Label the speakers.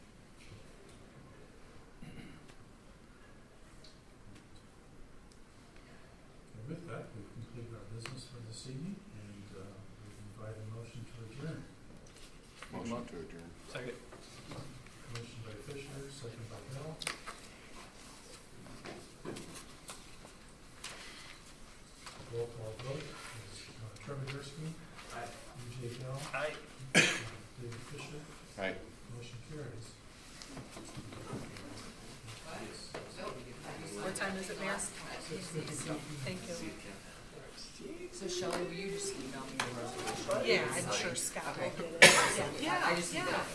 Speaker 1: this evening, and uh, we invite a motion to adjourn.
Speaker 2: Motion to adjourn.
Speaker 3: Second.
Speaker 1: Motion by Fisher, second by Hill. Roll call vote, is uh, Trevor Dursky.
Speaker 3: Aye.
Speaker 1: EJ Hill.
Speaker 3: Aye.
Speaker 1: David Fisher.
Speaker 2: Aye.
Speaker 1: Motion carries.
Speaker 4: What time is it, Mayor?
Speaker 1: Six fifty-seven.
Speaker 4: Thank you.
Speaker 5: So Shelley, will you just email me the resolution?
Speaker 4: Yeah, I'm sure Scott will get it.
Speaker 5: I- I just need that.